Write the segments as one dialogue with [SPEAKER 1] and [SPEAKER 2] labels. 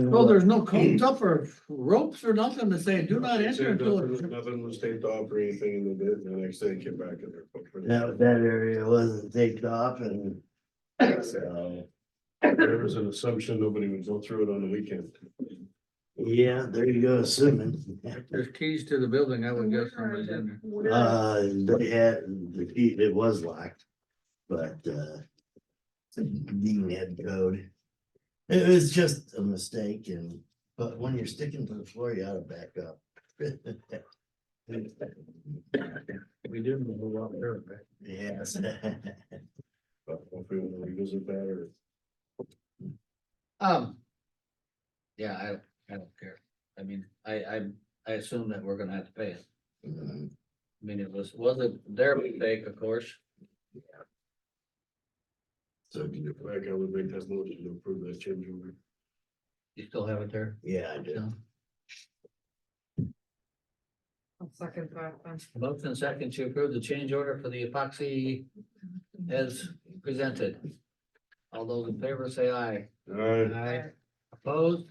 [SPEAKER 1] Well, there's no codes up or ropes or nothing to say, do not enter until. it's-"
[SPEAKER 2] Nothing was taped off or anything and they did, and the next day it came back in their. footprint.
[SPEAKER 3] That, that area wasn't taped off and. um, So,
[SPEAKER 2] There was an assumption nobody would go through it on the weekend.
[SPEAKER 3] yeah, there you go, assuming.
[SPEAKER 1] There's keys to the building, I would guess somebody's in there.
[SPEAKER 3] Uh, they had, the key, it was locked, but, uh. Dean had code. It was just a mistake and, but when you're sticking to the floor, you ought to back up.
[SPEAKER 1] We didn't move up there, right?
[SPEAKER 3] Yes.
[SPEAKER 2] But if we want to revisit that or.
[SPEAKER 4] Um. Yeah, I, I don't care. I mean, I, I, I assume that we're gonna have to pay it.
[SPEAKER 2] Mm-hmm.
[SPEAKER 4] I mean, it was, wasn't their mistake, of course.
[SPEAKER 2] So can you back, I would make that motion to approve that change order.
[SPEAKER 4] You still have it there?
[SPEAKER 3] Yeah, I do.
[SPEAKER 5] I'll second that then.
[SPEAKER 4] Motion and second to approve the change order for the epoxy as presented. All those in favor say aye.
[SPEAKER 2] Alright,
[SPEAKER 4] Aye. Opposed?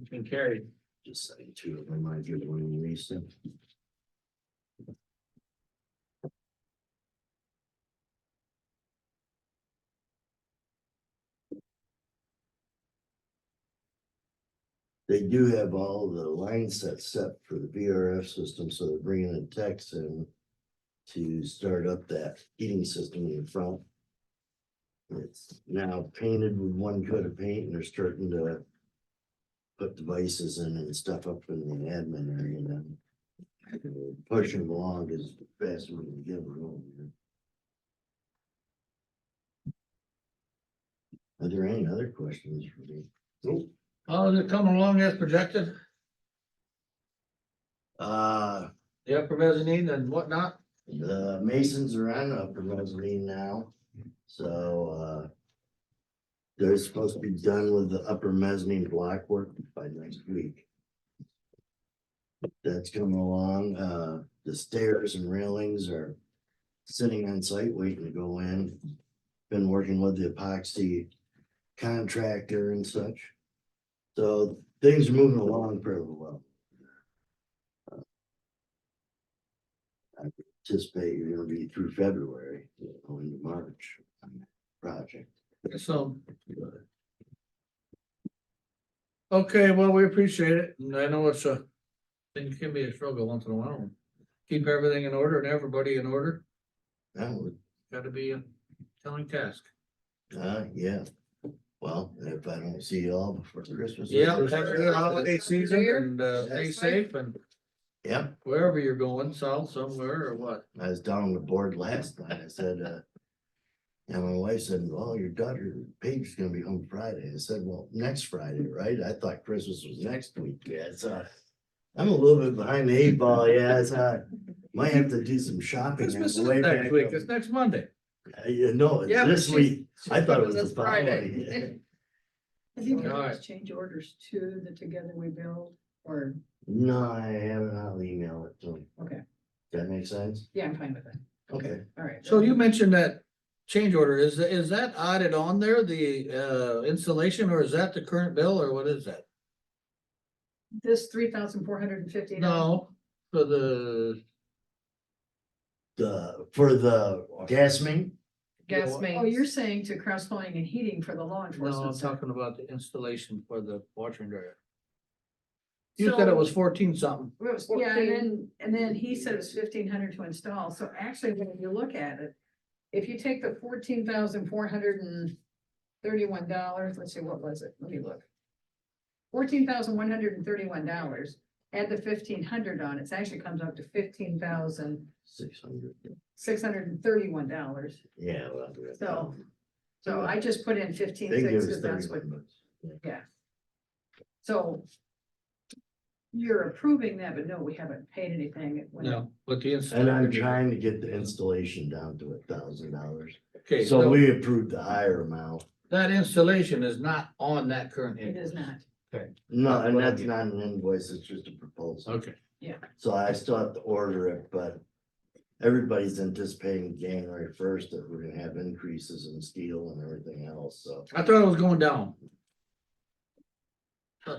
[SPEAKER 4] It's been carried.
[SPEAKER 3] Just say two of them, I do the one you recent. They do have all the line sets set for the VRF system, so they're bringing in techs in to start up that heating system in front. It's now painted with one coat of paint and they're starting to put devices in and stuff up in the admin area and then push them along as fast as we can get them over here. Are there any other questions for me?
[SPEAKER 1] Oh, is it coming along as projected?
[SPEAKER 3] Uh,
[SPEAKER 1] The upper mezzanine and whatnot?
[SPEAKER 3] the masons are uh, on upper mezzanine now, so, uh, they're supposed to be done with the upper mezzanine block work by next week. That's coming along, uh, the stairs and railings are sitting on site waiting to go in. Been working with the epoxy contractor and such. So things are moving along pretty well. anticipate you're gonna be through February, you know, into March on that project.
[SPEAKER 1] So. Okay, well, we appreciate it, and I know it's a, thing can be a struggle once in a while. Keep everything in order and everybody in order,
[SPEAKER 3] That would,
[SPEAKER 1] gotta be a telling task.
[SPEAKER 3] uh, yeah. Well, if I don't see you all before Christmas.
[SPEAKER 1] Yeah, have a good holiday season and uh, stay safe and
[SPEAKER 3] Yep,
[SPEAKER 1] wherever you're going, south somewhere or what.
[SPEAKER 3] I was down on the board last night. I said, uh. And my wife said, well, your daughter Paige is gonna be home Friday. I said, well, next Friday, right? I thought Christmas was next week. Yeah, so. I'm a little bit behind the eight ball, yeah, so I might have to do some shopping. on the
[SPEAKER 1] Christmas is
[SPEAKER 3] way
[SPEAKER 1] next
[SPEAKER 3] back
[SPEAKER 1] week,
[SPEAKER 3] up.
[SPEAKER 1] it's next Monday.
[SPEAKER 3] Uh, yeah, no, it's
[SPEAKER 5] Yeah, but
[SPEAKER 3] this
[SPEAKER 5] she's-
[SPEAKER 3] week. I thought it was
[SPEAKER 5] That's
[SPEAKER 3] the
[SPEAKER 5] Friday.
[SPEAKER 3] following.
[SPEAKER 6] I think you
[SPEAKER 1] Alright.
[SPEAKER 6] can change orders to the Together We Build or,
[SPEAKER 3] No, I haven't. I'll email it to him.
[SPEAKER 6] Okay.
[SPEAKER 3] That makes sense?
[SPEAKER 6] yeah, I'm fine with that.
[SPEAKER 3] Okay.
[SPEAKER 6] All right.
[SPEAKER 1] So you mentioned that change order, is, is that added on there, the uh, installation, or is that the current bill, or what is that?
[SPEAKER 6] This three thousand four hundred and fifty.
[SPEAKER 1] No, for the,
[SPEAKER 3] The, for the gas main?
[SPEAKER 5] Gas
[SPEAKER 6] Oh, you're
[SPEAKER 5] mains,
[SPEAKER 6] saying to cross plumbing and heating for the law
[SPEAKER 1] no, I'm
[SPEAKER 6] enforcement. stuff.
[SPEAKER 1] talking about the installation for the washer and dryer. You said it was fourteen something,
[SPEAKER 6] It was- Yeah, and then, and then he said it's fifteen hundred to install. So actually, when you look at it, if you take the fourteen thousand four hundred and thirty-one dollars, let's see, what was it? Let me look. Fourteen thousand one hundred and thirty-one dollars, add the fifteen hundred on, it actually comes up to fifteen thousand
[SPEAKER 3] Six hundred.
[SPEAKER 6] six hundred and thirty-one dollars.
[SPEAKER 3] Yeah. well, I'll do it.
[SPEAKER 6] So, So I just put in fifteen
[SPEAKER 3] They give
[SPEAKER 6] six,
[SPEAKER 3] us
[SPEAKER 6] because that's what,
[SPEAKER 3] thirty bucks.
[SPEAKER 6] so. You're approving that, but no, we haven't paid anything. when-
[SPEAKER 1] no, but the.
[SPEAKER 3] And I'm
[SPEAKER 1] installation-
[SPEAKER 3] trying to get the installation down to a thousand dollars.
[SPEAKER 1] Okay,
[SPEAKER 3] So
[SPEAKER 1] so
[SPEAKER 3] we approved the higher amount.
[SPEAKER 1] that installation is not on that current.
[SPEAKER 6] It is
[SPEAKER 1] invoice.
[SPEAKER 6] not.
[SPEAKER 3] No, and
[SPEAKER 1] Well,
[SPEAKER 3] that's
[SPEAKER 1] yeah.
[SPEAKER 3] not an invoice. It's just a proposal.
[SPEAKER 1] Okay,
[SPEAKER 3] So I still have to order it, but everybody's anticipating January first that we're gonna have increases in steel and everything else, so.
[SPEAKER 1] I thought it was going down,